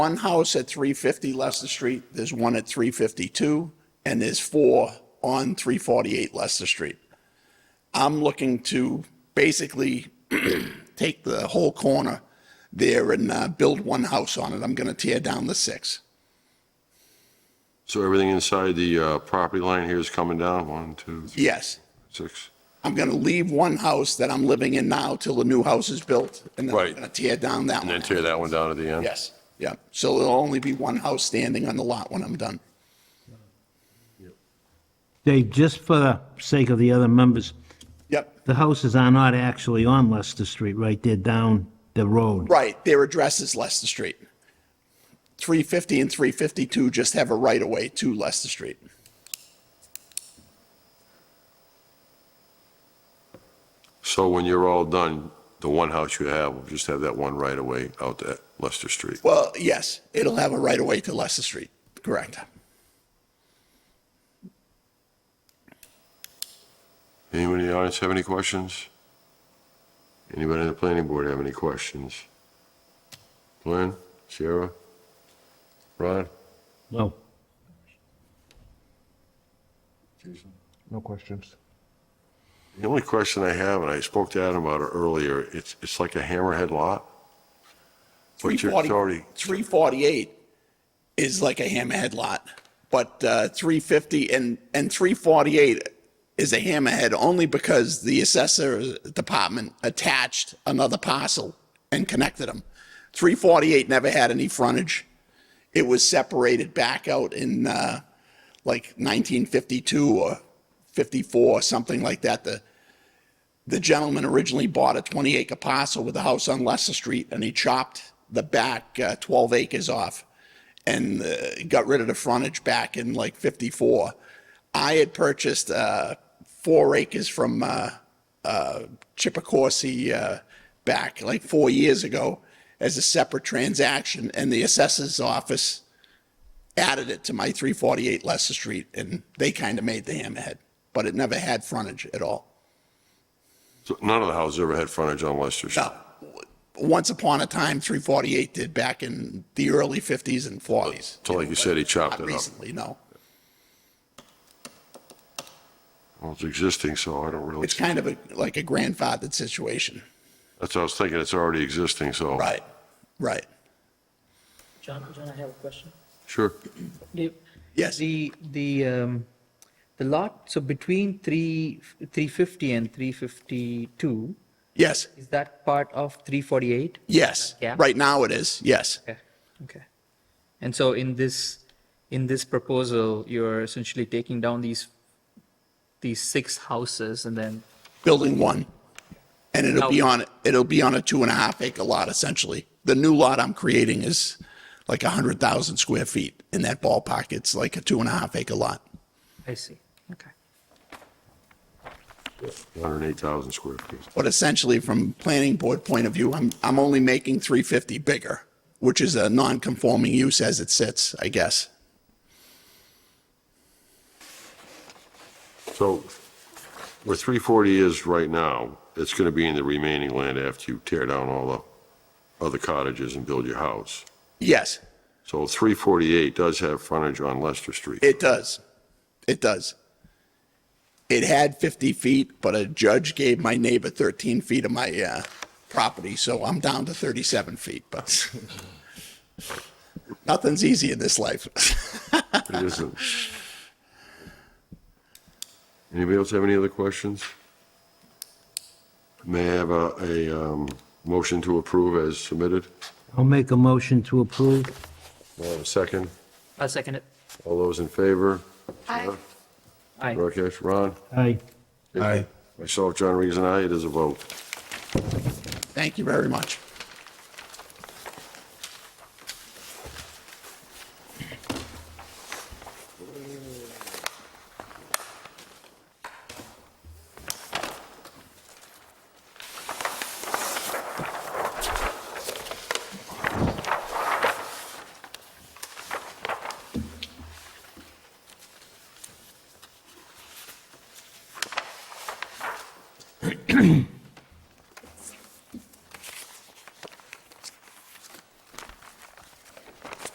one house at 350 Leicester Street, there's one at 352, and there's four on 348 Leicester Street. I'm looking to basically take the whole corner there and uh, build one house on it. I'm going to tear down the six. So everything inside the uh, property line here is coming down, one, two, three, Yes. six. I'm going to leave one house that I'm living in now till the new house is built, and then I'm Right. going to tear down that And one. then tear that one down at the end? Yes, yeah. So there'll only be one house standing on the lot when I'm done. Dave, just for the sake of the other members, Yep, the houses are not actually on Leicester Street, right? They're down the road. right, their address is Leicester Street. 350 and 352 just have a right-of-way to Leicester Street. So when you're all done, the one house you have will just have that one right away out to Leicester Street. Well, yes, it'll have a right-of-way to Leicester Street, correct. Anybody in the audience have any questions? Anybody in the planning board have any questions? Glenn, Sierra, Ron? Well, No questions. The only question I have, and I spoke to Adam about it earlier, it's, it's like a hammerhead lot. But you're- it's 340 already, 348 is like a hammerhead lot, but uh, 350 and, and 348 is a hammerhead only because the assessor department attached another parcel and connected them. 348 never had any frontage. It was separated back out in uh, like 1952 or 54, something like that. The, the gentleman originally bought a 20 acre parcel with a house on Leicester Street and he chopped the back uh, 12 acres off and uh, got rid of the frontage back in like 54. I had purchased uh, four acres from uh, uh, Chippecorsi uh, back like four years ago as a separate transaction and the assessor's office added it to my 348 Leicester Street and they kind of made the hammerhead, but it never had frontage at all. so none of the houses ever had frontage on Leicester Street. No. Uh, Once upon a time, 348 did back in the early 50s and 40s. So like you said, he chopped Not it up. recently, no. Well, it's existing, so I don't really, It's kind of a, like a grandfathered situation. that's what I was thinking, it's already existing, so. Right, right. John, John, I have a question. Sure. Dave, Yes. The, the, um, the lot, so between three, three fifty and three fifty-two, Yes, is that part of three forty-eight? yes. Yeah. Right now it is, yes. Okay, okay. And so in this, in this proposal, you're essentially taking down these, these six houses and then, Building one. And it'll be on, it'll be on a two and a half acre lot essentially. The new lot I'm creating is like 100,000 square feet in that ballpark. It's like a two and a half acre lot. I see, okay. 108,000 square feet. But essentially, from planning board point of view, I'm, I'm only making 350 bigger, which is a non-conforming use as it sits, I guess. So where 340 is right now, it's going to be in the remaining land after you tear down all the other cottages and build your house. Yes, So 348 does have frontage on Leicester Street. it does. It does. It had 50 feet, but a judge gave my neighbor 13 feet of my uh, property, so I'm down to 37 feet, but nothing's easy in this life. It isn't. Anybody else have any other questions? May I have a, a um, motion to approve as submitted? I'll make a motion to approve. May I have a second? I'll second it. All those in favor? Aye. Aye. Rakesh, Ron? Aye. Aye. Myself, John Regan, and I, it is a vote. Thank you very much.